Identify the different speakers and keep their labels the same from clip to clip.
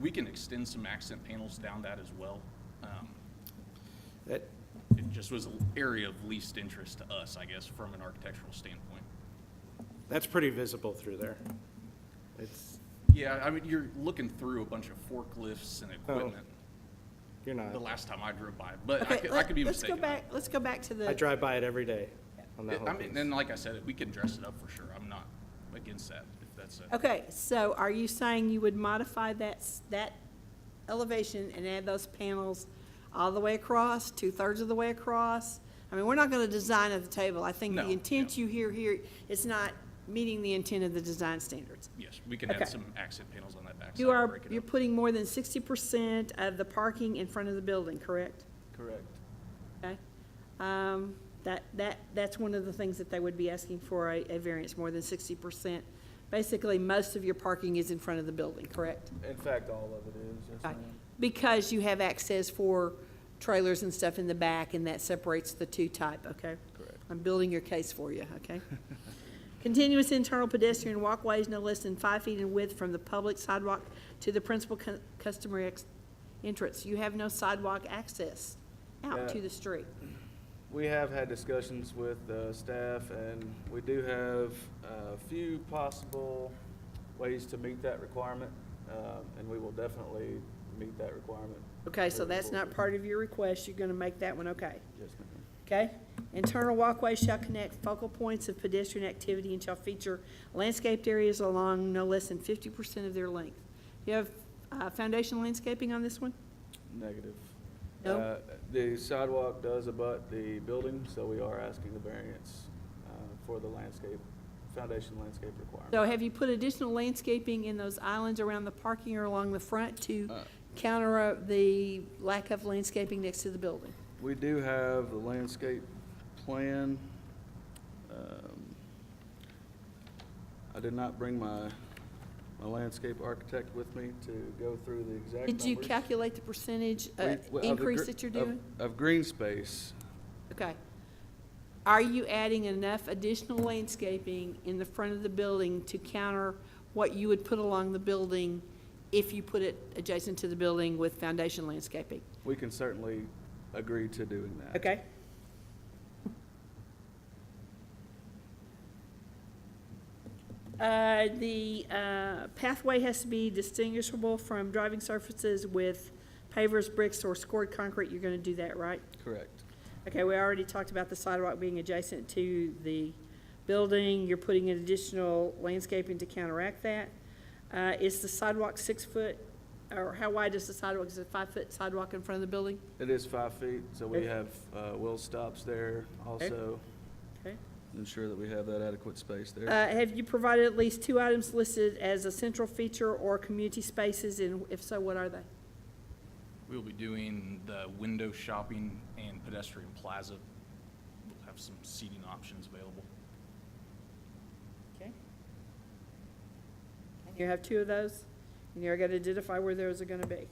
Speaker 1: We can extend some accent panels down that as well. Um,
Speaker 2: That,
Speaker 1: It just was an area of least interest to us, I guess, from an architectural standpoint.
Speaker 2: that's pretty visible through there. It's,
Speaker 1: Yeah, I mean, you're looking through a bunch of forklifts and
Speaker 3: Oh,
Speaker 1: equipment
Speaker 2: you're
Speaker 3: uh,
Speaker 1: the
Speaker 2: not,
Speaker 1: last time I drove by, but I
Speaker 4: Okay,
Speaker 1: could, I
Speaker 4: let-
Speaker 1: could be
Speaker 4: let's go
Speaker 1: mistaken.
Speaker 4: back, let's go back to
Speaker 2: I
Speaker 4: the,
Speaker 2: drive by it every day on that
Speaker 1: I
Speaker 2: whole
Speaker 1: mean,
Speaker 2: piece.
Speaker 1: and like I said, we can dress it up for sure. I'm not against that, if that's a,
Speaker 4: okay, so are you saying you would modify that, s- that elevation and add those panels all the way across, two-thirds of the way across? I mean, we're not gonna design at the table. I think
Speaker 1: No,
Speaker 4: the
Speaker 1: yeah.
Speaker 4: intent you hear here is not meeting the intent of the design standards.
Speaker 1: yes, we can
Speaker 4: Okay.
Speaker 1: add some accent panels on that backside.
Speaker 4: You
Speaker 1: and
Speaker 4: are,
Speaker 1: break it
Speaker 4: you're
Speaker 1: up.
Speaker 4: putting more than sixty percent of the parking in front of the building, correct?
Speaker 1: Correct.
Speaker 4: Okay. Um, That, that, that's one of the things that they would be asking for a, a variance, more than sixty percent. Basically, most of your parking is in front of the building, correct?
Speaker 3: In fact, all of it is, yes,
Speaker 4: Okay.
Speaker 3: ma'am.
Speaker 4: Because you have access for trailers and stuff in the back, and that separates the two type, okay?
Speaker 3: Correct.
Speaker 4: I'm building your case for you, okay? Continuous internal pedestrian walkways no less than five feet in width from the public sidewalk to the principal cu- customer ex- entrance. You have no sidewalk access
Speaker 3: Yeah.
Speaker 4: out to the street.
Speaker 3: We have had discussions with uh, staff, and we do have a few possible ways to meet that requirement, um, and we will definitely meet that requirement.
Speaker 4: Okay, so
Speaker 3: moving
Speaker 4: that's not
Speaker 3: forward.
Speaker 4: part of your request, you're gonna make that one okay,
Speaker 3: Yes, ma'am.
Speaker 4: okay? Internal walkways shall connect focal points of pedestrian activity and shall feature landscaped areas along no less than fifty percent of their length. You have, uh, foundation landscaping on this one?
Speaker 3: Negative.
Speaker 4: No?
Speaker 3: Uh, The sidewalk does abut the building, so we are asking the variance uh, for the landscape, foundation landscape requirement.
Speaker 4: So have you put additional landscaping in those islands around the parking or along the front to counter uh, the lack of landscaping next to the building?
Speaker 3: We do have the landscape plan. Um, I did not bring my, my landscape architect with me to go through the exact
Speaker 4: Did you
Speaker 3: numbers.
Speaker 4: calculate the percentage,
Speaker 3: We-
Speaker 4: uh,
Speaker 3: well, of the
Speaker 4: increase
Speaker 3: gr-
Speaker 4: that you're
Speaker 3: of-
Speaker 4: doing?
Speaker 3: Of green space,
Speaker 4: Okay. Are you adding enough additional landscaping in the front of the building to counter what you would put along the building if you put it adjacent to the building with foundation landscaping?
Speaker 3: we can certainly agree to doing that.
Speaker 4: Okay. Uh, the, uh, pathway has to be distinguishable from driving surfaces with pavers, bricks, or scored concrete. You're gonna do that, right?
Speaker 3: Correct.
Speaker 4: Okay, we already talked about the sidewalk being adjacent to the building. You're putting in additional landscaping to counteract that. Uh, is the sidewalk six foot, or how wide is the sidewalk? Is it five foot sidewalk in front of the building?
Speaker 3: It is five feet, so we
Speaker 4: Okay.
Speaker 3: have uh, wheel stops there also,
Speaker 4: Okay.
Speaker 3: ensure that we have that adequate space
Speaker 4: Uh,
Speaker 3: there.
Speaker 4: have you provided at least two items listed as a central feature or community spaces, and if so, what are they?
Speaker 1: We'll be doing the window shopping and pedestrian plaza. We'll have some seating options available.
Speaker 4: Okay. And you have two of those, and you're gonna identify where those are gonna be.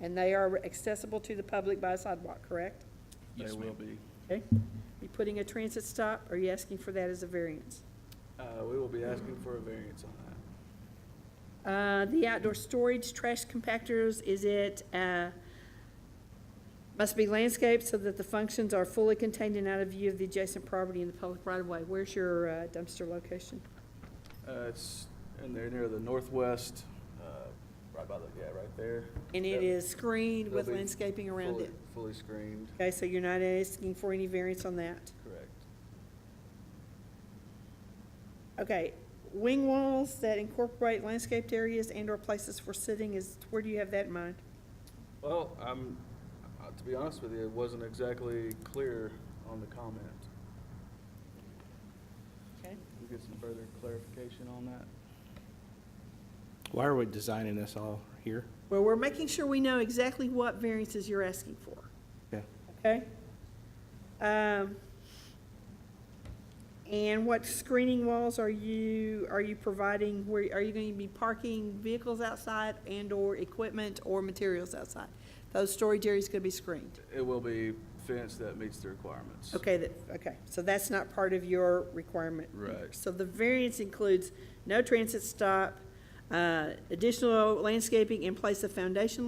Speaker 4: And they are accessible to the public by sidewalk, correct?
Speaker 3: They
Speaker 1: Yes,
Speaker 3: will
Speaker 1: ma'am.
Speaker 3: be.
Speaker 4: Okay, you putting a transit stop, or are you asking for that as a variance?
Speaker 3: Uh, We will be asking for a variance on that.
Speaker 4: Uh, the outdoor storage trash compactors, is it, uh, must be landscaped so that the functions are fully contained and out of view of the adjacent property in the public right of way? Where's your uh, dumpster location?
Speaker 3: Uh, it's in there near the northwest, uh, right by the, yeah, right there.
Speaker 4: And it
Speaker 3: That-
Speaker 4: is screened with
Speaker 3: that'll be
Speaker 4: landscaping around
Speaker 3: fully-
Speaker 4: it.
Speaker 3: Fully screened,
Speaker 4: Okay, so you're not asking for any variance on that?
Speaker 3: correct.
Speaker 4: Okay, wing walls that incorporate landscaped areas and/or places for sitting is, where do you have that in mind?
Speaker 3: Well, I'm, uh, to be honest with you, it wasn't exactly clear on the comment.
Speaker 4: Okay.
Speaker 3: Can we get some further clarification on that?
Speaker 2: Why are we designing this all here?
Speaker 4: Well, we're making sure we know exactly what variances you're asking for,
Speaker 2: Yeah.
Speaker 4: okay? Um, and what screening walls are you, are you providing, where, are you gonna be parking vehicles outside and/or equipment or materials outside? Those storage areas gonna be screened?
Speaker 3: It will be fence that meets the requirements.
Speaker 4: Okay, that, okay, so that's not part of your requirement.
Speaker 3: Right.
Speaker 4: So the variance includes no transit stop, Uh, Additional landscaping in place of foundation